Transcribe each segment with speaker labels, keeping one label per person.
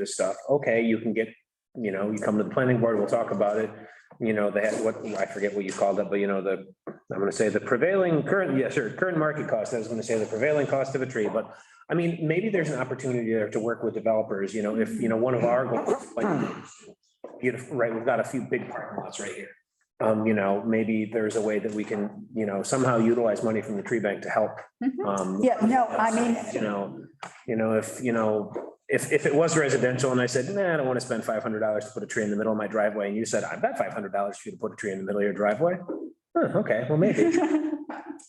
Speaker 1: this stuff, okay, you can get, you know, you come to the planning board, we'll talk about it. You know, they had what, I forget what you called it, but you know, the, I'm gonna say the prevailing current, yes, sir, current market cost, I was gonna say the prevailing cost of a tree, but I mean, maybe there's an opportunity there to work with developers, you know, if, you know, one of our goals, like, beautiful, right, we've got a few big parking lots right here. Um, you know, maybe there's a way that we can, you know, somehow utilize money from the tree bank to help.
Speaker 2: Mhm.
Speaker 1: um,
Speaker 3: Yeah, no, I mean-
Speaker 1: You know, you know, if, you know, if, if it was residential and I said, nah, I don't want to spend five hundred dollars to put a tree in the middle of my driveway, and you said, I bet five hundred dollars for you to put a tree in the middle of your driveway. Huh, okay, well, maybe,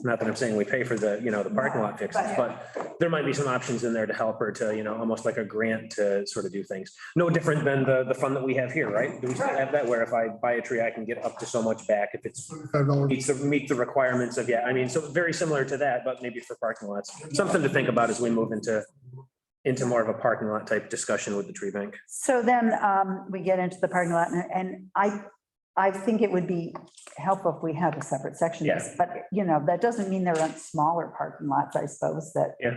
Speaker 1: not that I'm saying we pay for the, you know, the parking lot fixes, but there might be some options in there to help or to, you know, almost like a grant to sort of do things. No different than the, the fund that we have here, right? Do we still have that where if I buy a tree, I can get up to so much back if it's
Speaker 4: Five dollars.
Speaker 1: meets the, meet the requirements of, yeah, I mean, so very similar to that, but maybe for parking lots. Something to think about as we move into, into more of a parking lot type discussion with the tree bank.
Speaker 3: So then um, we get into the parking lot and- and I, I think it would be helpful if we had a separate section.
Speaker 1: Yeah.
Speaker 3: But, you know, that doesn't mean there aren't smaller parking lots, I suppose, that.
Speaker 1: Yeah.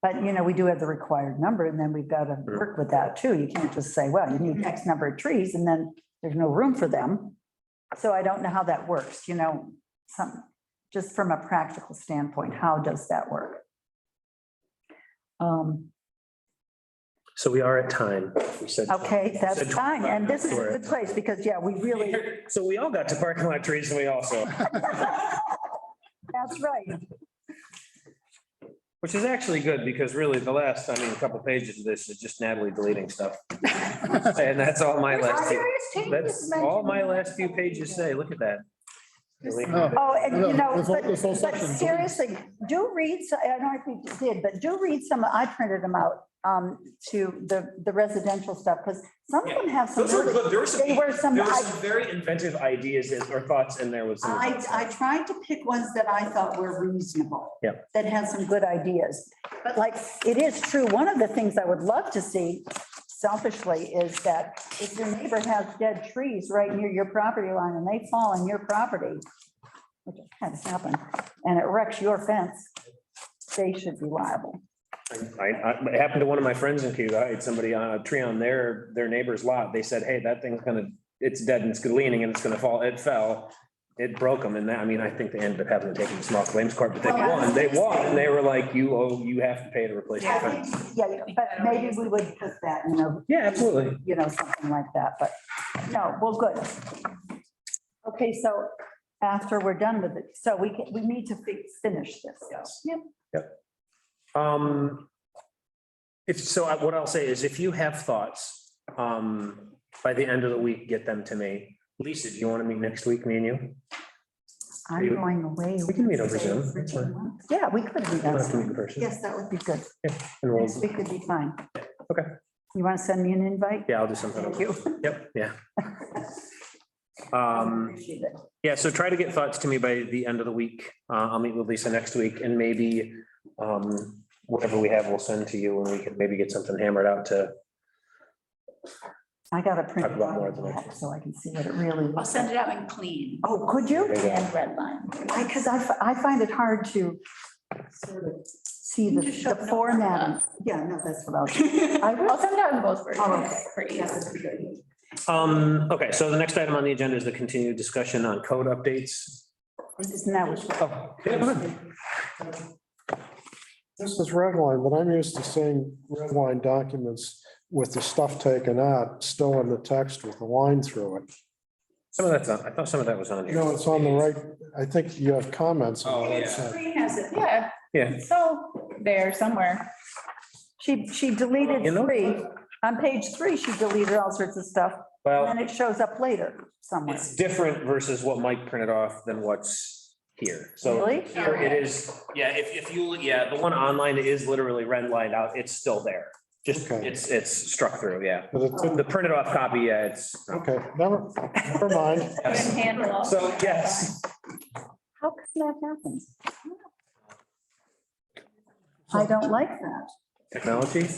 Speaker 3: But, you know, we do have the required number and then we've got to work with that too. You can't just say, well, you need X number of trees and then there's no room for them. So I don't know how that works, you know, some, just from a practical standpoint, how does that work? Um,
Speaker 1: So we are at time. We said.
Speaker 3: Okay,
Speaker 1: Said
Speaker 3: that's
Speaker 1: 25
Speaker 3: fine, and this is
Speaker 1: minutes,
Speaker 3: the
Speaker 1: we're-
Speaker 3: place, because, yeah, we really,
Speaker 1: So we all got to parking lot trees and we also,
Speaker 3: that's right.
Speaker 1: which is actually good because really the last, I mean, a couple pages of this is just Natalie deleting stuff. And that's all my last, few- that's all my last few pages say. Look at that.
Speaker 4: No.
Speaker 3: Oh, and you know,
Speaker 4: This whole-
Speaker 3: but,
Speaker 4: this whole
Speaker 3: but
Speaker 4: section.
Speaker 3: seriously, do read, so- I don't know if you did, but do read some, I printed them out um, to the, the residential stuff, because some of them have some,
Speaker 1: Those were
Speaker 3: really-
Speaker 1: good. There were some,
Speaker 3: they were some,
Speaker 1: there were
Speaker 3: I,
Speaker 1: some very inventive ideas and- or thoughts in there with some. of
Speaker 3: I
Speaker 1: those.
Speaker 3: I tried to pick ones that I thought were reasonable.
Speaker 1: Yep.
Speaker 3: That had some good ideas. But like, it is true, one of the things I would love to see selfishly is that if your neighbor has dead trees right near your property line and they fall on your property, which has happened, and it wrecks your fence, they should be liable.
Speaker 1: I, I, it happened to one of my friends in Cuba. I had somebody on a tree on their, their neighbor's lot. They said, hey, that thing's gonna, it's dead and it's leaning and it's gonna fall. It fell. It broke them and that, I mean, I think they ended up having to take them to small claims court, but they
Speaker 3: Well,
Speaker 1: won. They won. And they were like, you owe, you have to pay to replace your
Speaker 3: I
Speaker 1: fence.
Speaker 3: think, Yeah, but maybe we would put that, you know,
Speaker 1: Yeah, absolutely.
Speaker 3: you know, something like that, but no, well, good. Okay, so after we're done with it, so we, can- we need to fi- finish this. Yep.
Speaker 1: Um, if, so I- what I'll say is if you have thoughts, um, by the end of the week, get them to me. Lisa, do you want to meet next week, me and you?
Speaker 3: I'm going away.
Speaker 1: We can meet over Zoom. That's fine.
Speaker 3: Yeah, we could do
Speaker 1: We don't have to meet in
Speaker 3: that.
Speaker 1: person.
Speaker 3: Yes, that would be good.
Speaker 1: And we'll-
Speaker 3: Next week would be fine.
Speaker 1: Okay.
Speaker 3: You want to send me an invite?
Speaker 1: Yeah, I'll do something.
Speaker 3: Thank you.
Speaker 1: Yep, yeah. Um,
Speaker 3: Appreciate it.
Speaker 1: yeah, so try to get thoughts to me by the end of the week. Uh, I'll meet with Lisa next week and maybe um, whatever we have, we'll send to you and we can maybe get something hammered out to,
Speaker 3: I got to print
Speaker 1: Talk
Speaker 3: it
Speaker 1: about more at
Speaker 3: out
Speaker 1: the next
Speaker 3: so I can see what it really.
Speaker 2: I'll
Speaker 3: looks like.
Speaker 2: send it out in clean
Speaker 3: Oh, could you?
Speaker 1: There you go.
Speaker 2: and red line.
Speaker 3: I, because I, fi- I find it hard to sort of see the,
Speaker 2: Just show
Speaker 3: the
Speaker 2: no
Speaker 3: formatting. Yeah, no, that's what I was. I will-
Speaker 2: I'll send it out in both
Speaker 3: Oh,
Speaker 2: versions
Speaker 3: okay.
Speaker 2: for you.
Speaker 1: um, okay, so the next item on the agenda is the continued discussion on code updates.
Speaker 3: Isn't that what?
Speaker 1: Oh, yeah, go ahead.
Speaker 4: This is red line, but I'm used to seeing red line documents with the stuff taken out, still in the text with the line through it.
Speaker 1: Some of that's on, I thought some of that was on here.
Speaker 4: No, it's on the right, I think you have comments.
Speaker 1: Oh,
Speaker 4: on the right side.
Speaker 2: Green has it, Oh, yeah.
Speaker 1: Yeah.
Speaker 2: So there somewhere.
Speaker 3: She, she deleted
Speaker 1: You know-
Speaker 3: three. On page three, she deleted all sorts of stuff, and
Speaker 1: Well,
Speaker 3: then it shows up later somewhere.
Speaker 1: it's different versus what Mike printed off than what's here. So
Speaker 3: Really?
Speaker 1: Here it is, yeah, if, if you, yeah, the one online is literally red lined out, it's still there. Just,
Speaker 4: Okay.
Speaker 1: it's, it's struck through, yeah.
Speaker 4: But it's,
Speaker 1: The printed off copy, yeah, it's.
Speaker 4: okay, never, never mind.
Speaker 1: Yes.
Speaker 2: Handle.
Speaker 1: So, yes,
Speaker 3: How could that happen? I don't like that.
Speaker 1: technology,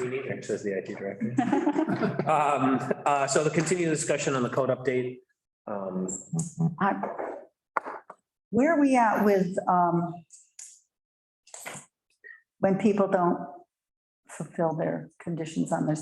Speaker 1: we need it, says the IT director. Um, uh, so the continued discussion on the code update. Um,
Speaker 3: I- Where are we at with, um, when people don't fulfill their conditions on their